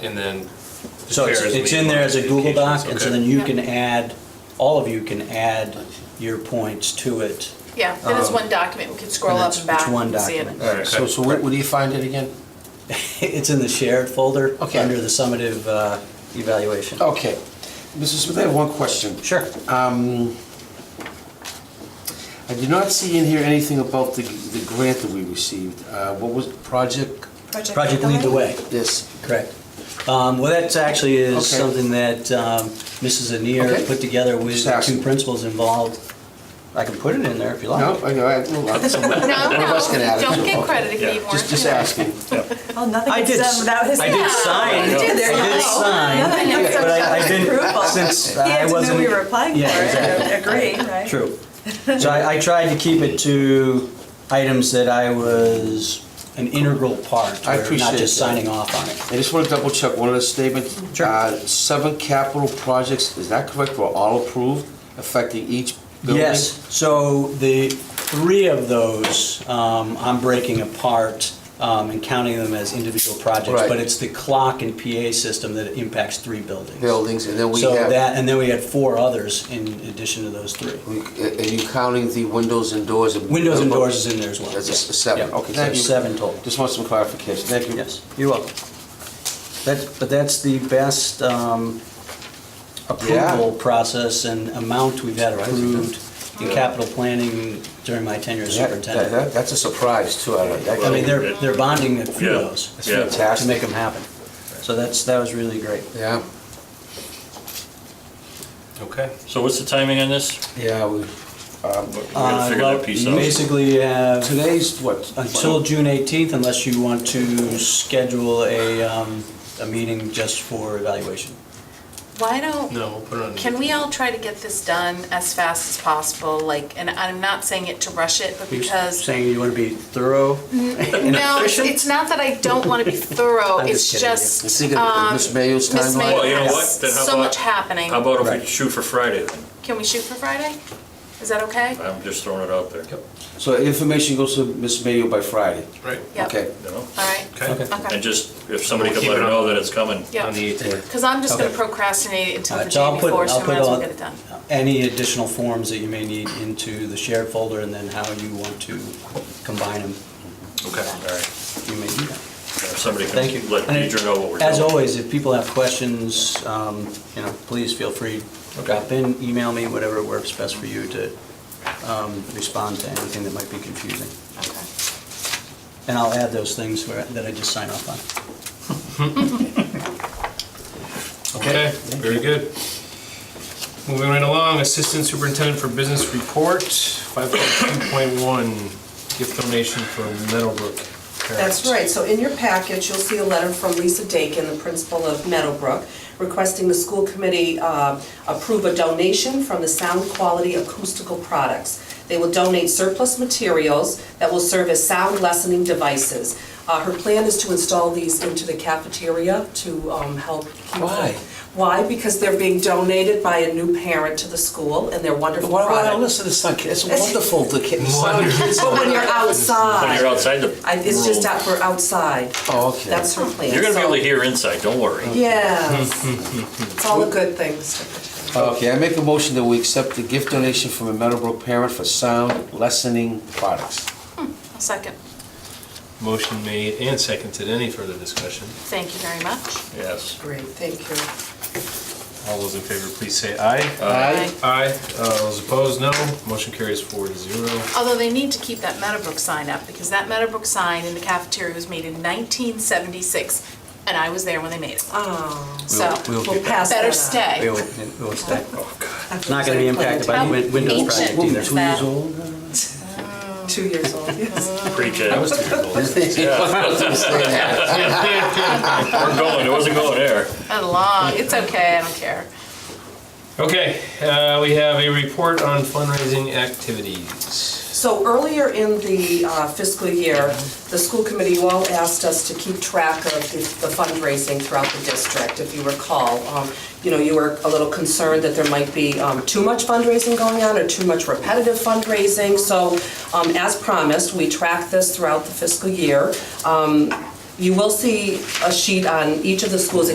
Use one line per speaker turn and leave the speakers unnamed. and then. the
So it's,
chairs
it's
meet
in there
on
as a Google Doc, and so
Okay.
then you
Yeah.
can add, all of you can add your points to it.
Yeah, and it's
Um,
one document, we could scroll
and
up
it's-
and back
it's one
and see it.
document.
All right, so, so where, where do you find it again?
It's in the shared folder,
Okay. Oh.
under the summative uh, evaluation.
Okay. Mrs. Smith, I have one question.
Sure.
Um, I did not see in here anything about the, the grant that we received. Uh, what was, project,
Project Lead the Way,
this?
correct. Um, Well, that's actually is
Okay.
something that um, Mrs.
Okay.
Anir put together with
Just
the
asking.
two principals involved. I can put it in there if you
No,
like.
I know, I, well, that's a-
No, no,
One of us can add it.
don't get
Okay.
credit if you need more.
just, just asking.
Oh, nothing
I
gets
did,
done without his.
I did sign,
You did,
there
I
you
did
go.
sign,
Nothing gets done
but I- I
without his
didn't-
approval.
since
He
I
had to know
wasn't.
we were applying for
Yeah,
it,
exactly.
and agree, right?
True. So I, I tried to keep it to items that I was an integral part,
I
or not
appreciate
just
that.
signing off on it.
I just want to double check one of the statements.
Sure.
Uh, Seven capital projects, is that correct, were all approved affecting each building?
Yes, so the three of those, um, I'm breaking apart um, and counting them as individual projects,
Right.
but it's the clock and PA system that impacts three buildings.
Buildings, and then we
So
have.
that, and then we had four others in addition to those three.
uh, Are you counting the windows and doors? and-
Windows and doors is in there as well.
That's a s-
Yeah.
seven,
Yeah.
okay,
So
thank you.
seven total.
Just want some clarification, thank you.
Yes, you're welcome. That, but that's the best um, approval process and amount we've had approved in capital planning during my tenure as
That- that-
superintendent.
that- That's a surprise too, I like that.
I mean, they're, they're bonding a few of
Yeah,
those
yeah.
to make them happen. So that's, that was really great.
Yeah,
Okay. Uh,
So what's the timing on this?
yeah, we, um,
We gotta figure that piece out.
Uh, Basically, you have
today's what?
until June 18th unless you want to schedule a, um, a meeting just for evaluation.
Why don't,
No, we'll put it on.
can we all try to get this done as fast as possible? Like, and I'm not saying it to rush it, but
You're
because,
Saying you want to be thorough and
no, it's-
efficient?
it's not that I don't want to be thorough,
I'm just
it's
kidding.
You
just,
see the-
um,
Miss Mayo's
Miss
timeline?
Mayor
Well, you know
has
what? Then how
so
about-
much happening.
How about if
Right.
we shoot for Friday then?
Can we shoot for Friday? Is that okay?
I'm just throwing it out there,
So information goes to Miss Mayo by Friday?
Right,
Yep.
Okay.
you know?
All right,
okay.
And
okay.
just, if somebody could
Keep
let
it
her
on.
know that it's coming.
On the
Yeah,
18th.
because I'm just going to
Okay.
procrastinate it until
All
the
right, so I'll
day
put-
before, so
I'll
we
put
might as well
all-
get it done.
Any additional forms that you may need into the shared folder and then how you want to combine them,
Okay.
All right.
you may do that.
If somebody can
Thank you.
let
And
Deidre know what we're doing.
As always, if people have questions, um, you know, please feel free, drop in, email me, whatever works best for you to um, respond to anything that might be confusing.
Okay.
And I'll add those things where- that I just sign off on.
Okay, very good. Moving right along, Assistant Superintendent for Business Report, 5.2.1, gift donation for Meadowbrook parents.
That's right, so in your package, you'll see a letter from Lisa Dakin, the principal of Meadowbrook, requesting the school committee uh, approve a donation from the Sound Quality Acoustical Products. They will donate surplus materials that will serve as sound lessening devices. Uh, Her plan is to install these into the cafeteria to um, help keep.
Why?
Why? Because they're being donated by a new parent to the school, and they're wonderful
Why do I
products.
listen to Sun It's wonderful, the kid, the sound of kids.
But when you're outside.
When you're outside the
I- It's just
room,
out for outside.
Oh, okay.
That's her plan.
You're gonna be
so-
able to hear inside, don't worry.
Yes. It's all the good things.
Okay, I make a motion that we accept the gift donation from a Meadowbrook parent for sound lessening products.
A second.
Motion made and seconded. Any further discussion?
Thank you very much.
Yes.
Great, thank you.
All those in favor, please say aye.
Aye.
Aye. Uh, Those opposed, no. Motion carries four to zero.
Although they need to keep that Meadowbrook sign up, because that Meadowbrook sign in the cafeteria was made in 1976, and I was there when they made it.
Oh.
So,
We'll
We'll
get that.
pass that
better
on.
We
stay.
will- we will stay.
It's
Not going to be impacted by the Win- Windows project
Ancient.
either.
Two years old?
Two years old, yes.
Preach it.
I
We're
was two years old.
going, it wasn't going there.
And long, it's okay, I don't care.
Okay, uh, we have a report on fundraising activities.
So earlier in the uh, fiscal year, the school committee you all asked us to keep track of the the fundraising throughout the district, if you recall. Um, You know, you were a little concerned that there might be um, too much fundraising going on or too much repetitive fundraising. So um, as promised, we track this throughout the fiscal year. Um, You will see a sheet on each of the schools